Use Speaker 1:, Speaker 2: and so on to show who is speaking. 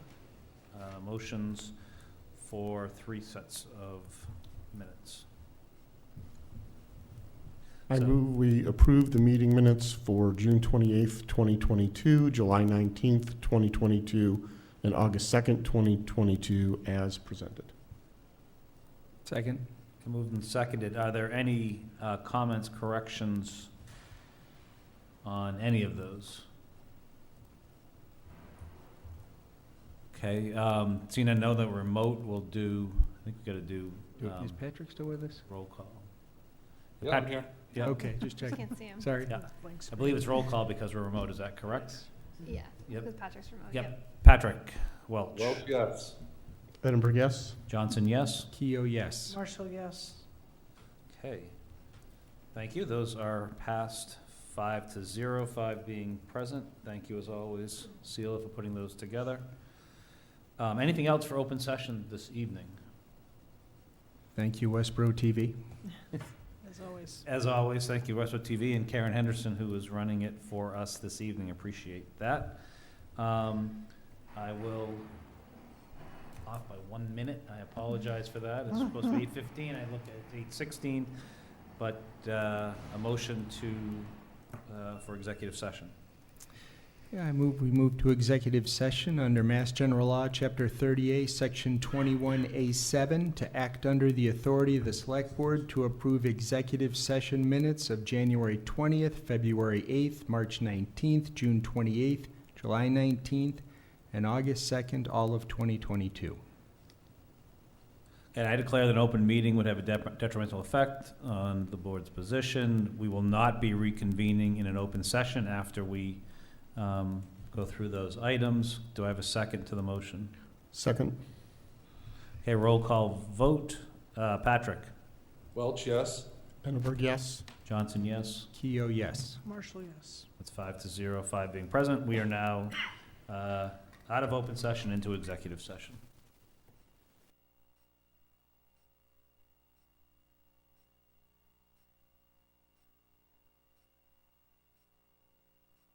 Speaker 1: Uh, motions for three sets of minutes.
Speaker 2: I
Speaker 1: So-
Speaker 2: move we approve the meeting minutes for June 28th, 2022, July 19th, 2022, and August 2nd, 2022, as presented.
Speaker 3: Second.
Speaker 1: Moved and seconded. Are there any uh, comments, corrections on any of those? Okay, um, seeing I know that remote will do, I think we gotta do um,
Speaker 3: Is Patrick still with us?
Speaker 1: roll call.
Speaker 4: Yeah, I'm
Speaker 1: Pat-
Speaker 4: here.
Speaker 1: Yeah.
Speaker 3: Okay, just checking.
Speaker 5: Can't see him.
Speaker 3: Sorry.
Speaker 1: Yeah. I believe it's roll call because we're remote, is that correct?
Speaker 5: Yeah,
Speaker 1: Yep.
Speaker 5: because Patrick's remote.
Speaker 1: Yep. Patrick Welch.
Speaker 4: Well, yes.
Speaker 2: Edinburgh, yes?
Speaker 1: Johnson, yes?
Speaker 3: Keo, yes.
Speaker 6: Marshall, yes.
Speaker 1: Okay. Thank you. Those are passed five to zero, five being present. Thank you as always, Celia, for putting those together. Um, anything else for open session this evening?
Speaker 3: Thank you, Westboro TV.
Speaker 6: As always.
Speaker 1: As always, thank you, Westwood TV and Karen Henderson, who is running it for us this evening. Appreciate that. Um, I will off by one minute. I apologize for that. It's supposed to be eight fifteen. I looked at eight sixteen. But, uh, a motion to, uh, for executive session.
Speaker 3: Yeah, I move, we move to executive session under Mass General Law, Chapter 30A, Section 21A7, to act under the authority of the Select Board to approve executive session minutes of January 20th, February 8th, March 19th, June 28th, July 19th, and August 2nd, all of 2022.
Speaker 1: And I declare that an open meeting would have a dep- detrimental effect on the board's position. We will not be reconvening in an open session after we um, go through those items. Do I have a second to the motion?
Speaker 2: Second?
Speaker 1: Okay, roll call vote. Uh, Patrick?
Speaker 4: Welch, yes.
Speaker 2: Edinburgh, yes?
Speaker 1: Johnson, yes.
Speaker 3: Keo, yes.
Speaker 6: Marshall, yes.
Speaker 1: That's five to zero, five being present. We are now uh, out of open session into executive session.